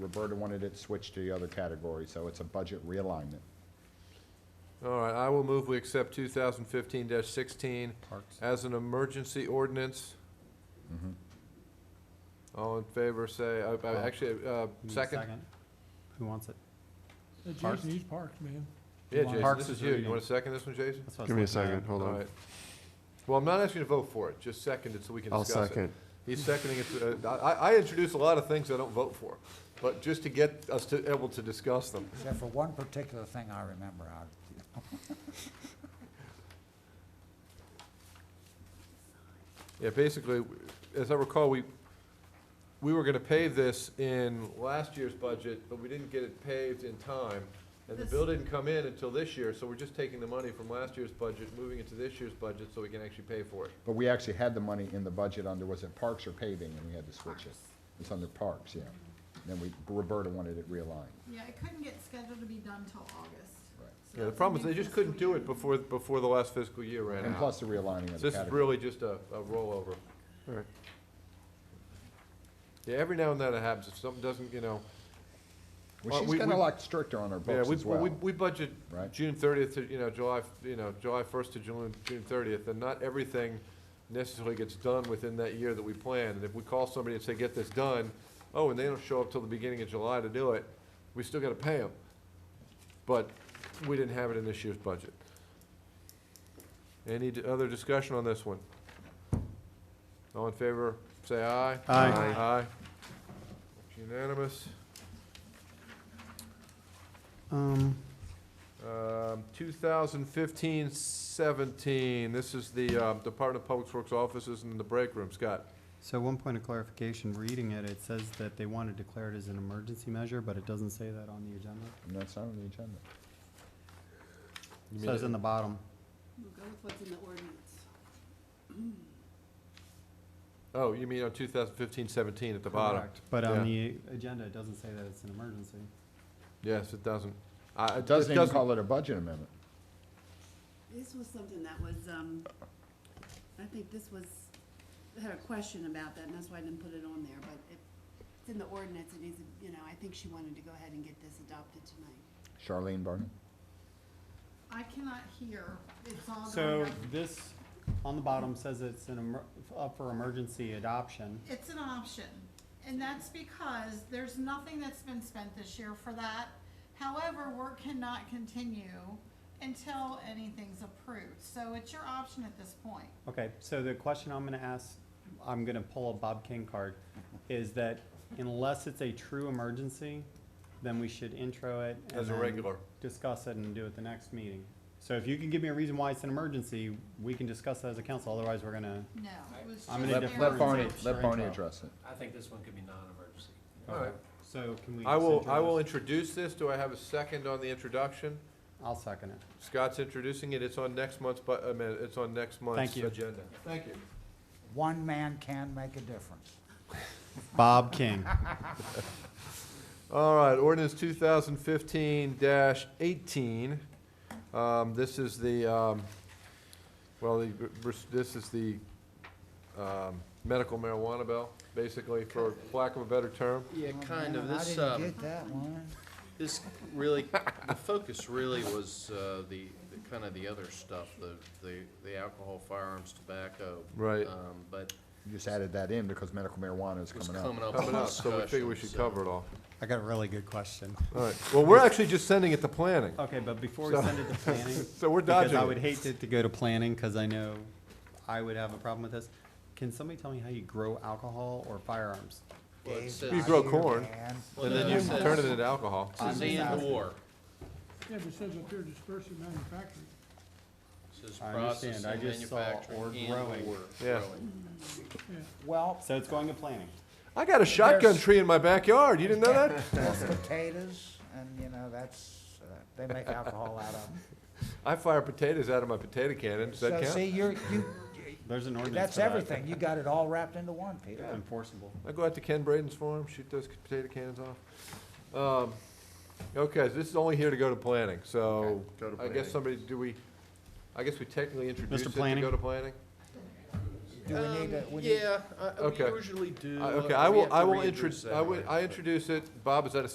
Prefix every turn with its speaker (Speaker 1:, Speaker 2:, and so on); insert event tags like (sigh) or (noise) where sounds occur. Speaker 1: Roberta wanted it switched to the other category, so it's a budget realignment.
Speaker 2: All right, I will move we accept two thousand fifteen sixteen
Speaker 3: Parks.
Speaker 2: as an emergency ordinance.
Speaker 1: Mhm.
Speaker 2: All in favor, say, uh, uh, actually, uh,
Speaker 3: You need a
Speaker 2: second?
Speaker 3: Who wants it?
Speaker 4: That
Speaker 3: Parks.
Speaker 4: Jason needs parks, man.
Speaker 2: Yeah, Jason,
Speaker 3: Parks
Speaker 2: this
Speaker 3: is
Speaker 2: is you. You
Speaker 3: reading.
Speaker 2: want to second this one, Jason?
Speaker 3: That's what I was
Speaker 5: Give me a
Speaker 3: looking at.
Speaker 5: second, hold
Speaker 2: All
Speaker 5: on.
Speaker 2: right. Well, I'm not asking you to vote for it, just second it so we can
Speaker 5: I'll
Speaker 2: discuss it.
Speaker 5: second.
Speaker 2: He's seconding it. to- uh, I, I introduce a lot of things I don't vote for, but just to get us to, able to discuss them.
Speaker 6: Except for one particular thing I remember out of it.
Speaker 2: Yeah, basically, as I recall, we, we were gonna pave this in last year's budget, but we didn't get it paved in time. And the bill didn't come in until this year, so we're just taking the money from last year's budget, moving it to this year's budget so we can actually pay for it.
Speaker 1: But we actually had the money in the budget under, was it parks or paving, and we had to switch it? It's under parks, yeah. Then we, Roberta wanted it realigned.
Speaker 7: Yeah, it couldn't get scheduled to be done till August.
Speaker 1: Right.
Speaker 7: So
Speaker 2: Yeah, the
Speaker 7: that's
Speaker 2: problem is
Speaker 7: the
Speaker 2: they
Speaker 7: new
Speaker 2: just
Speaker 7: fiscal
Speaker 2: couldn't do
Speaker 7: year.
Speaker 2: it before, before the last fiscal year ran
Speaker 1: And
Speaker 2: out.
Speaker 1: plus the realigning of
Speaker 2: So
Speaker 1: the
Speaker 2: This is
Speaker 1: category.
Speaker 2: really just a, a rollover.
Speaker 5: All right.
Speaker 2: Yeah, every now and then it happens, if something doesn't, you know,
Speaker 1: Well,
Speaker 2: we-
Speaker 1: she's got a
Speaker 2: we-
Speaker 1: lot stricter on her
Speaker 2: Yeah,
Speaker 1: books
Speaker 2: we,
Speaker 1: as well.
Speaker 2: we, we budget
Speaker 1: Right.
Speaker 2: June thirtieth to, you know, July, f- you know, July first to June, June thirtieth, and not everything necessarily gets done within that year that we plan. And if we call somebody and say, get this done, oh, and they don't show up till the beginning of July to do it, we still gotta pay them. But we didn't have it in this year's budget. Any d- other discussion on this one? All in favor, say aye.
Speaker 3: Aye. Aye.
Speaker 2: Aye. It's Unanimous.
Speaker 3: Um,
Speaker 2: Um, 2015-17, this is the um, Department of Public Works offices in the break room. Scott?
Speaker 3: so one point of clarification, reading it, it says that they want to declare it as an emergency measure, but it doesn't say that on the agenda.
Speaker 1: And that's not on the agenda.
Speaker 3: It Says in the bottom.
Speaker 7: We'll go with what's in the ordinance.
Speaker 2: Oh, you mean on 2015-17 at the bottom?
Speaker 3: Correct. But on
Speaker 2: Yeah.
Speaker 3: the agenda, it doesn't say that it's an emergency.
Speaker 2: Yes, it doesn't. I-
Speaker 1: It doesn't even call it a budget amendment.
Speaker 8: This was something that was, um, I think this was, I had a question about that, and that's why I didn't put it on there, but it, it's in the ordinance, it needs, to- you know, I think she wanted to go ahead and get this adopted tonight.
Speaker 1: Charlene Barney?
Speaker 7: I cannot hear, it's all going
Speaker 3: So
Speaker 7: up.
Speaker 3: this, on the bottom, says it's an, emer- up for emergency adoption.
Speaker 7: It's an option, and that's because there's nothing that's been spent this year for that. However, work cannot continue until anything's approved, so it's your option at this point.
Speaker 3: Okay, so the question I'm gonna ask, I'm gonna pull a Bob King card, is that unless it's a true emergency, then we should intro it. and
Speaker 2: As a
Speaker 3: then
Speaker 2: regular.
Speaker 3: Discuss it and do it the next meeting. So if you can give me a reason why it's an emergency, we can discuss that as a council, otherwise we're gonna,
Speaker 7: No, it was just
Speaker 3: I'm gonna
Speaker 7: there
Speaker 1: Let
Speaker 3: defer
Speaker 7: as
Speaker 1: let
Speaker 7: an
Speaker 3: to-
Speaker 1: Barney,
Speaker 7: option.
Speaker 1: let Barney
Speaker 3: Intro.
Speaker 1: address it.
Speaker 9: I think this one could be non-emergency.
Speaker 2: All right.
Speaker 3: so can we?
Speaker 2: I will,
Speaker 3: just
Speaker 2: I will
Speaker 3: intro
Speaker 2: introduce this. Do I have a second on the introduction?
Speaker 3: this? I'll second it.
Speaker 2: Scott's introducing it. It's on next month's, bu- I mean, it's on next month's
Speaker 3: Thank you.
Speaker 2: agenda. Thank you.
Speaker 6: One man can make a difference.
Speaker 3: Bob King.
Speaker 2: All right, ordinance two thousand fifteen eighteen. Um, this is the, um, well, the, this is the, um, medical marijuana bill, basically, for lack of a better term.
Speaker 9: Yeah,
Speaker 6: Oh,
Speaker 9: kind of.
Speaker 6: man,
Speaker 9: This,
Speaker 6: I
Speaker 9: um,
Speaker 6: didn't get that one.
Speaker 9: this really, the focus really was, uh, the, the kind of the other stuff, the, the, the alcohol, firearms, tobacco.
Speaker 2: Right.
Speaker 9: Um, but
Speaker 1: You just added that in because medical marijuana is
Speaker 9: it was
Speaker 1: coming up.
Speaker 9: coming up in
Speaker 2: Coming up, so we figure we
Speaker 9: discussion,
Speaker 2: should
Speaker 9: so-
Speaker 2: cover it all.
Speaker 3: I got a really good question.
Speaker 2: All right, well, we're actually just sending it to planning,
Speaker 3: Okay, but before we
Speaker 2: So-
Speaker 3: send it
Speaker 2: (laughs)
Speaker 3: to planning,
Speaker 2: so we're
Speaker 3: because
Speaker 2: dodging
Speaker 3: I would
Speaker 2: it.
Speaker 3: hate it to go to planning, cause I know I would have a problem with this. Can somebody tell me how you grow alcohol or firearms?
Speaker 9: Well, it
Speaker 6: Dave's
Speaker 9: says-
Speaker 2: You grow
Speaker 6: not here,
Speaker 2: corn.
Speaker 6: man.
Speaker 2: And then you
Speaker 9: Well, it
Speaker 2: turn it
Speaker 9: says-
Speaker 2: into alcohol.
Speaker 9: It says
Speaker 3: I'm just
Speaker 9: and
Speaker 3: asking.
Speaker 9: or,
Speaker 4: Yeah, but it says up here dispersing manufacturing.
Speaker 9: It says
Speaker 3: I understand.
Speaker 9: processing,
Speaker 3: I just saw
Speaker 9: manufacturing,
Speaker 3: or
Speaker 9: and
Speaker 3: growing.
Speaker 9: or
Speaker 2: Yeah.
Speaker 9: growing.
Speaker 6: Well,
Speaker 3: So it's going to planning.
Speaker 2: I got a shotgun tree in my backyard, you didn't know that? (laughs)
Speaker 6: there's (laughs) potatoes, and you know, that's, uh, they make alcohol out of them.
Speaker 2: I fire potatoes out of my potato cannon, does that
Speaker 6: So see,
Speaker 2: count?
Speaker 6: you're,
Speaker 9: (laughs)
Speaker 6: you,
Speaker 3: There's an ordinance.
Speaker 6: that's
Speaker 3: for that.
Speaker 6: everything. You got it all wrapped into one, Peter.
Speaker 3: Enforceable.
Speaker 2: I go out to Ken Braden's farm, shoot those potato cannons off. Um, Okay, so this is only here to go to planning, so
Speaker 5: go to
Speaker 2: I guess
Speaker 5: planning.
Speaker 2: somebody, do we, I guess we technically introduce it to
Speaker 3: Planning?
Speaker 2: go to planning?
Speaker 6: Do we need to, we need?
Speaker 9: Yeah, uh,
Speaker 2: Okay.
Speaker 9: we usually do.
Speaker 2: I- Okay,
Speaker 9: uh,
Speaker 2: I
Speaker 9: we
Speaker 2: will,
Speaker 9: have to
Speaker 2: I will
Speaker 9: reintroduce
Speaker 2: introduce, I will,
Speaker 9: anyway,
Speaker 2: I
Speaker 9: but-
Speaker 2: introduce it. Bob, is that a